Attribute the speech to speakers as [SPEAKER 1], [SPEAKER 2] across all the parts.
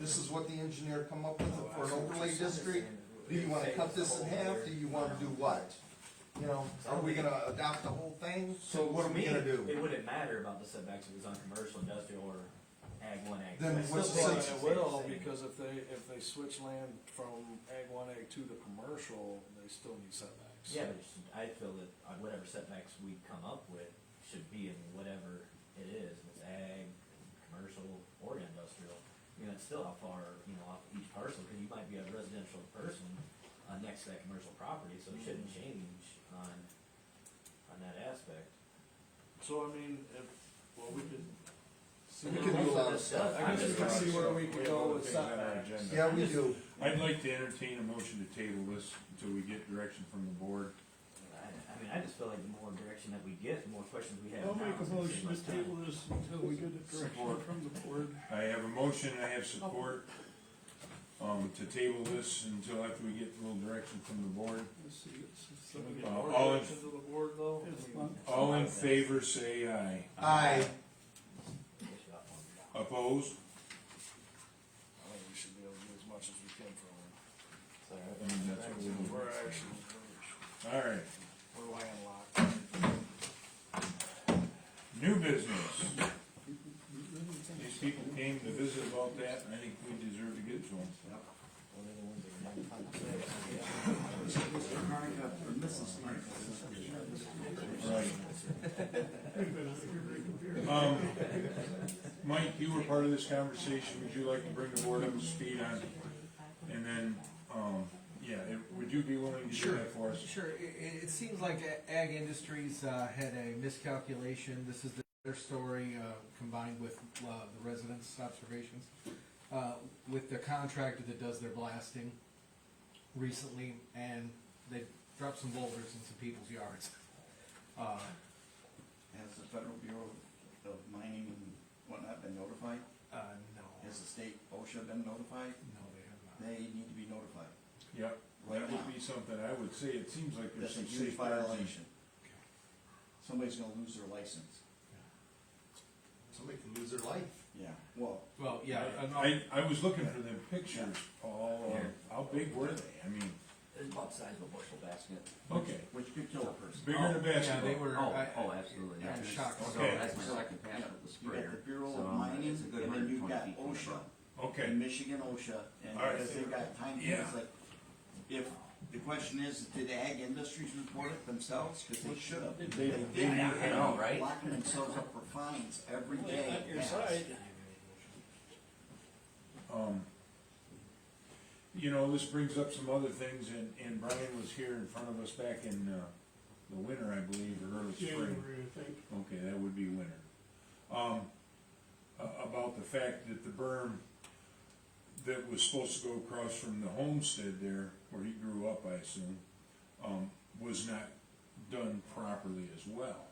[SPEAKER 1] this is what the engineer come up with for an overlay district, do
[SPEAKER 2] Do
[SPEAKER 1] you wanna cut this in half, do you wanna do what? You know, are we gonna adopt the whole thing?
[SPEAKER 3] So
[SPEAKER 1] what are we gonna do?
[SPEAKER 3] It wouldn't matter about the setbacks if it was on commercial, industrial, or ag one, ag two.
[SPEAKER 1] Then
[SPEAKER 3] It's
[SPEAKER 1] what's
[SPEAKER 3] still
[SPEAKER 1] the
[SPEAKER 3] gonna
[SPEAKER 1] sense?
[SPEAKER 4] It
[SPEAKER 3] stay the
[SPEAKER 4] will,
[SPEAKER 3] same.
[SPEAKER 4] because if they, if they switch land from ag one, ag two to commercial, they still need setbacks.
[SPEAKER 3] Yeah, but it's- I feel that on whatever setbacks we come up with should be in whatever it is, if it's ag, commercial, or industrial. I mean, that's still how far, you know, off each parcel, cause you might be a residential person, uh, next to that commercial property, so it shouldn't
[SPEAKER 1] Mm-hmm.
[SPEAKER 3] change on, on that aspect.
[SPEAKER 4] So I mean, if, well, we could. see
[SPEAKER 1] We
[SPEAKER 4] where
[SPEAKER 1] could
[SPEAKER 4] we-
[SPEAKER 1] do a lot of
[SPEAKER 3] stuff.
[SPEAKER 4] I guess we can see where we could go with setbacks.
[SPEAKER 1] Yeah, we do,
[SPEAKER 5] I'd like to entertain a motion to table this until we get direction from the board.
[SPEAKER 3] I, I mean, I just feel like the more direction that we get, the more questions we have now.
[SPEAKER 6] I'll make
[SPEAKER 3] it's
[SPEAKER 6] a
[SPEAKER 3] gonna
[SPEAKER 6] motion
[SPEAKER 3] save us
[SPEAKER 6] to
[SPEAKER 3] time.
[SPEAKER 6] table this until we get a direction
[SPEAKER 5] Support.
[SPEAKER 6] from the board.
[SPEAKER 5] I have a motion, I have support, um, to table this until after we get a little direction from the board.
[SPEAKER 6] Let's see, it's- it's-
[SPEAKER 4] Can we
[SPEAKER 5] Uh,
[SPEAKER 4] get more
[SPEAKER 5] all in-
[SPEAKER 4] direction to the board though? I
[SPEAKER 6] It's
[SPEAKER 4] mean,
[SPEAKER 6] fun.
[SPEAKER 5] All in favor, say aye.
[SPEAKER 1] aye,
[SPEAKER 5] Opposed?
[SPEAKER 4] I think we should be able to do as much as we can from
[SPEAKER 3] Sorry.
[SPEAKER 5] I mean, that's what
[SPEAKER 4] them.
[SPEAKER 5] we
[SPEAKER 4] We're actually, we're-
[SPEAKER 5] Alright,
[SPEAKER 4] we're landlocked.
[SPEAKER 5] new business. These people came to visit about that, and I think we deserve to get to them.
[SPEAKER 3] One of the ones that we might talk about.
[SPEAKER 5] Right. Um, Mike, you were part of this conversation, would you like to bring the board up to speed on, and then, um, yeah, if- would you be willing to do that for us?
[SPEAKER 7] Sure, it, it seems like A- Ag Industries uh, had a miscalculation. This is their story uh, combined with uh, the residents' observations. Uh, With the contractor that does their blasting recently, and they dropped some boulders in some people's yards. Uh,
[SPEAKER 8] Has the Federal Bureau of Mining and whatnot been notified?
[SPEAKER 7] uh, No,
[SPEAKER 8] Has the state OSHA been notified?
[SPEAKER 7] no, they have not.
[SPEAKER 8] They need to be notified
[SPEAKER 5] Yep,
[SPEAKER 8] right
[SPEAKER 5] that
[SPEAKER 8] now.
[SPEAKER 5] would be something I would say, it seems like there's some
[SPEAKER 8] That's a huge
[SPEAKER 5] safe violation.
[SPEAKER 8] violation. Somebody's gonna lose their license.
[SPEAKER 1] somebody can lose their life.
[SPEAKER 8] Yeah, well,
[SPEAKER 7] Well, yeah, and all-
[SPEAKER 5] I, I was looking for the pictures, Paul, of how big were they, I mean,
[SPEAKER 3] It's about the size of a bushel basket.
[SPEAKER 5] okay,
[SPEAKER 8] which could kill a person.
[SPEAKER 5] bigger than a
[SPEAKER 7] yeah, they
[SPEAKER 5] basketball.
[SPEAKER 7] were.
[SPEAKER 9] Oh,
[SPEAKER 7] I-
[SPEAKER 9] oh, absolutely, yeah.
[SPEAKER 7] I'm shocked.
[SPEAKER 9] So
[SPEAKER 5] Okay.
[SPEAKER 9] that's my second pass
[SPEAKER 8] Yeah,
[SPEAKER 9] with the
[SPEAKER 8] You got the
[SPEAKER 9] sprayer.
[SPEAKER 8] Bureau
[SPEAKER 9] So,
[SPEAKER 8] of
[SPEAKER 9] um,
[SPEAKER 8] Mining,
[SPEAKER 9] it's a good
[SPEAKER 8] and then you've
[SPEAKER 9] 120
[SPEAKER 8] got
[SPEAKER 9] feet from the
[SPEAKER 8] OSHA,
[SPEAKER 9] ground.
[SPEAKER 8] and
[SPEAKER 5] Okay,
[SPEAKER 8] Michigan OSA, and
[SPEAKER 5] All right.
[SPEAKER 8] because they've got time,
[SPEAKER 5] Yeah.
[SPEAKER 8] it's like, if, the question is, did Ag Industries report it themselves? Cause they should have.
[SPEAKER 5] They- they
[SPEAKER 8] didn't.
[SPEAKER 5] didn't.
[SPEAKER 9] I know, right?
[SPEAKER 8] Locking themselves up for fines every
[SPEAKER 6] Well,
[SPEAKER 8] day.
[SPEAKER 6] on your
[SPEAKER 8] Yes.
[SPEAKER 6] side.
[SPEAKER 5] um, you know, this brings up some other things, and, and Brian was here in front of us back in, uh, the winter, I believe, or early spring.
[SPEAKER 6] January, I think.
[SPEAKER 5] Okay, that would be winter. Um, a- about the fact that the berm that was supposed to go across from the homestead there, where he grew up, I assume, um, was not done properly as well.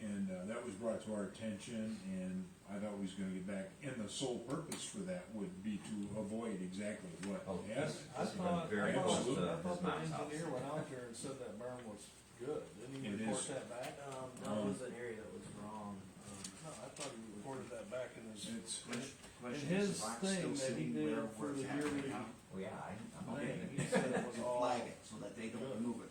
[SPEAKER 5] And, uh, that was brought to our attention, and I thought we was gonna get back, and the sole purpose for that would be to avoid exactly what
[SPEAKER 9] Oh,
[SPEAKER 5] happened.
[SPEAKER 4] I thought,
[SPEAKER 9] very
[SPEAKER 4] I thought,
[SPEAKER 3] uh,
[SPEAKER 5] close to
[SPEAKER 4] I
[SPEAKER 9] his mom's
[SPEAKER 4] thought the
[SPEAKER 9] house.
[SPEAKER 4] engineer went out there and said that berm was good, didn't he
[SPEAKER 5] It
[SPEAKER 4] report
[SPEAKER 5] is.
[SPEAKER 4] that back?
[SPEAKER 3] Um, that was an area that was wrong. Um,
[SPEAKER 4] No, I thought he reported that back in his,
[SPEAKER 5] It's,
[SPEAKER 8] Question-
[SPEAKER 4] in
[SPEAKER 8] question is,
[SPEAKER 4] his
[SPEAKER 8] the box
[SPEAKER 4] thing
[SPEAKER 8] still
[SPEAKER 4] that he
[SPEAKER 8] sitting
[SPEAKER 4] did
[SPEAKER 8] where-
[SPEAKER 4] for
[SPEAKER 8] where
[SPEAKER 4] the
[SPEAKER 8] it's happening
[SPEAKER 4] yearly.
[SPEAKER 8] now?
[SPEAKER 3] Well, yeah, I, uh, I'm okay.
[SPEAKER 8] Okay, Oh, he said it was all. Flag it, so that they don't move it, cause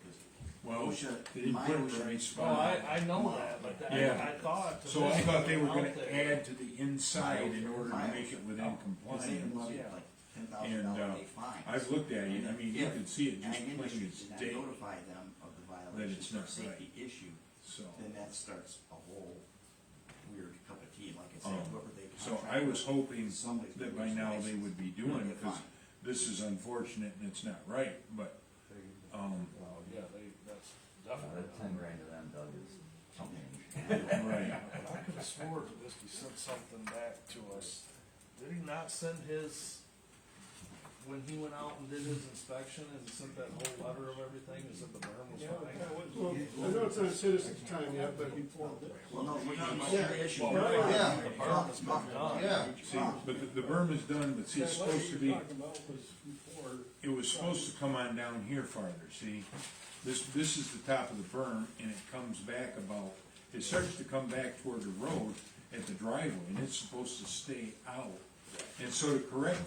[SPEAKER 5] well,
[SPEAKER 8] OSHA
[SPEAKER 5] they didn't put it in the
[SPEAKER 8] mine-
[SPEAKER 4] Oh,
[SPEAKER 5] right spot.
[SPEAKER 4] I, I know that, but
[SPEAKER 5] Yeah.
[SPEAKER 4] I, I thought. that
[SPEAKER 5] So I
[SPEAKER 4] this
[SPEAKER 5] thought they were
[SPEAKER 4] was
[SPEAKER 5] gonna
[SPEAKER 4] out there.
[SPEAKER 5] add to the inside in order to make it within
[SPEAKER 8] Cause they can
[SPEAKER 5] compliance.
[SPEAKER 8] love you
[SPEAKER 4] Yeah.
[SPEAKER 8] like ten thousand dollar
[SPEAKER 5] uh,
[SPEAKER 8] day fine.
[SPEAKER 5] I've looked at it, I mean, you can see it just
[SPEAKER 8] Ag
[SPEAKER 5] plain
[SPEAKER 8] Industries
[SPEAKER 5] as
[SPEAKER 8] did not
[SPEAKER 5] day,
[SPEAKER 8] notify them of the
[SPEAKER 5] Then
[SPEAKER 8] violation
[SPEAKER 5] it's
[SPEAKER 8] for
[SPEAKER 5] not Oh.
[SPEAKER 8] safety issue,
[SPEAKER 5] so.
[SPEAKER 8] then that starts a whole weird cup of tea, like I said,
[SPEAKER 5] Um,
[SPEAKER 8] whoever they
[SPEAKER 5] So
[SPEAKER 8] contract
[SPEAKER 5] I was
[SPEAKER 8] with,
[SPEAKER 5] hoping
[SPEAKER 8] somebody's
[SPEAKER 5] that by
[SPEAKER 8] gonna lose
[SPEAKER 5] now they
[SPEAKER 8] license.
[SPEAKER 5] would be doing it, cause this is unfortunate and it's not right, but, um,
[SPEAKER 4] Oh, yeah, they, that's
[SPEAKER 9] Uh,
[SPEAKER 4] definitely.
[SPEAKER 9] That ten grand to them, Doug, is something.
[SPEAKER 5] right.
[SPEAKER 4] I could have swore to this, he sent something back to us. Did he not send his, when he went out and did his inspection, and sent that whole letter of everything, and said the berm was
[SPEAKER 6] Yeah,
[SPEAKER 4] fine?
[SPEAKER 6] that was- well, I know it's not citizens' time yet, but he formed it.
[SPEAKER 8] Well, no, we're talking about
[SPEAKER 6] Yeah.
[SPEAKER 8] your issue.
[SPEAKER 5] Well,
[SPEAKER 6] right.
[SPEAKER 1] Yeah.
[SPEAKER 8] The problem is not-
[SPEAKER 4] Yeah.
[SPEAKER 1] Yeah.
[SPEAKER 5] See, but the, the berm is done, but see, it's
[SPEAKER 6] That letter
[SPEAKER 5] supposed to
[SPEAKER 6] you're
[SPEAKER 5] be,
[SPEAKER 6] Talking about was before.
[SPEAKER 5] it was supposed to come on down here farther, see? This, this is the top of the berm, and it comes back about, it starts to come back toward the road at the driveway, and it's supposed to stay out. And so to correct